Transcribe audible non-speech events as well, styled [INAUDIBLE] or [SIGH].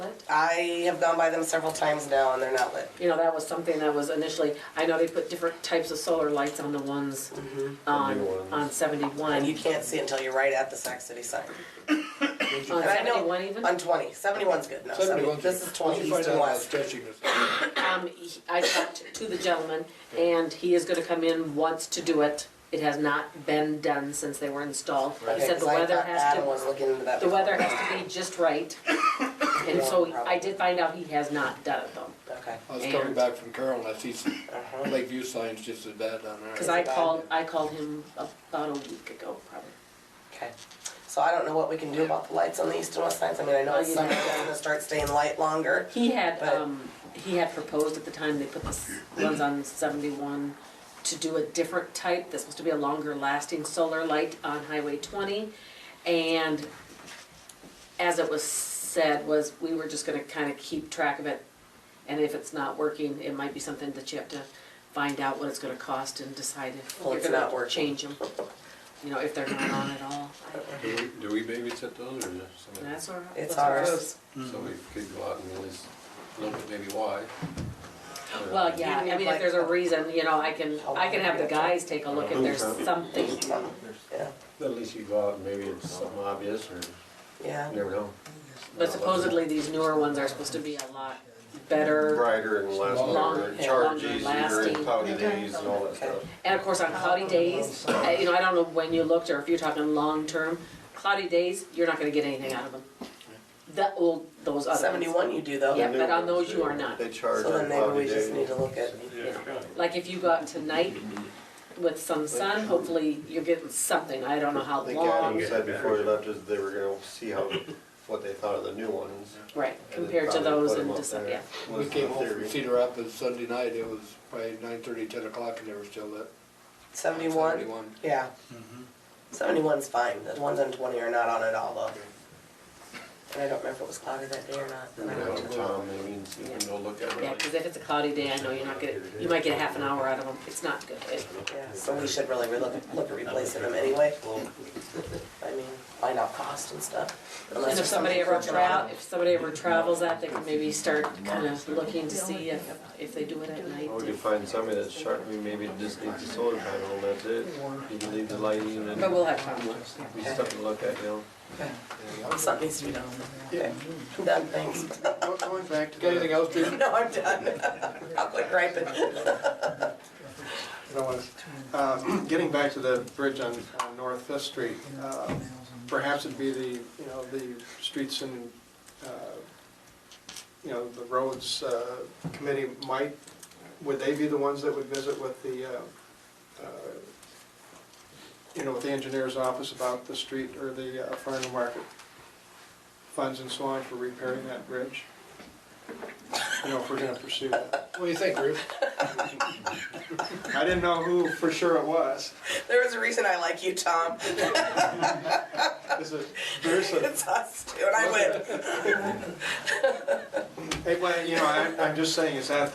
I have gone by them several times now and they're not lit. You know, that was something that was initially, I know they put different types of solar lights on the ones on, The new ones. on And you seventy-one. can't see until you're right at the Sac City sign. On And I know- seventy-one even? On 20. 71's good enough. 70, this is 20 east and west. Um, he- I talked to the gentleman, and he is gonna come in, wants to do it. It has not been done since they were installed. He Okay, said the 'cause I weather thought has Adam was to, looking into that. the weather has to be [COUGHS] just right. And so I did find out he has not done it though. Okay. I was coming back from Carroll and I see some Uh-huh. Lakeview signs just as bad down there. Cause I called, I called him about a week ago, probably. Okay, so I don't know what we can do about the lights on the east and west sides, I mean, I know Oh, it's you summer, know. they're gonna start staying light longer. He had, But- um, he had proposed at the time they put the s- ones on seventy-one to do a different type, that's supposed to be a longer lasting solar light on Highway twenty. And as it was said, was we were just gonna kinda keep track of it. And if it's not working, it might be something that you have to find out what it's gonna cost and decide if Well, you're it's not gonna working. change them. You know, if they're not on at all. Do we- do we babysit those or is And somebody? That's our. Uh, It's that's our- ours. So we could go out and at least look at maybe why. Well, yeah, I Even if, mean, like, if there's a reason, you know, I can, I can have the guys take a look if there's Okay. something. Um, Yeah, At least you go out and maybe it's something obvious or you yeah, never know. But supposedly these newer ones are supposed to be a lot better. brighter and less Longer, longer, yeah, charge longer easier, lasting. and cloudy days and all that Okay. stuff. And of course, on cloudy days, uh, you know, I don't know when you looked or if you're talking long-term, cloudy days, you're not gonna get anything out of them. The old, those other ones. seventy-one you do though. Yeah, but on those you are not. They charge So then on maybe cloudy we just need days. to look at, Like if you got tonight with some sun, hopefully you're getting something, I don't know how I think long. Adam said before he left is they were gonna see how, what they thought of the new ones. Right, and then compared to probably those put 'em in up December, there, yeah. We was the came home from theory. Cedar Rapids Sunday night, it was probably nine thirty, ten o'clock and they were still lit. seventy-one, 71. yeah. Mm-hmm. Seventy-one's fine, the ones on twenty are not on at all though. And I don't remember if it was cloudy that day or not. You Then I know, don't know. Tom, maybe and see if we can go look at Yeah, it. because if it's a cloudy day, I know you're not gonna, you might get half an hour out of them, it's not good. It- Yeah, so we should really look, look at replacing them anyway. I mean, find out cost and stuff. And unless if there's somebody something ever for July. tra, if somebody ever travels that, they can maybe start kind of looking to see if, if they do it at night. Or we could Oh, find somebody that's charged, we maybe just need the solar panel and that's it. You can leave the light in and But we'll have time. be something to look at, you know. Something needs to be done. Okay, I'm done, thanks. [LAUGHS] Going back Got anything else, Jason? No, I'm done. [LAUGHS] I'll quit griping. I don't want to- uh, [CLEARS THROAT] Getting back to the bridge on on North Fifth Street, uh, perhaps it'd be the, you know, the streets and, uh, you know, the roads uh, committee might, would they be the ones that would visit with the, uh, uh, you know, with the engineer's office about the street or the uh, farm to market funds and so on for repairing that bridge? You know, if we're going to pursue that. What do you think, Ruth? I didn't know who for sure it was. There was a reason I like you, Tom. Is it, there's a, [LAUGHS] It's us two, and I win. hey, well, you know, I'm, I'm just saying, is that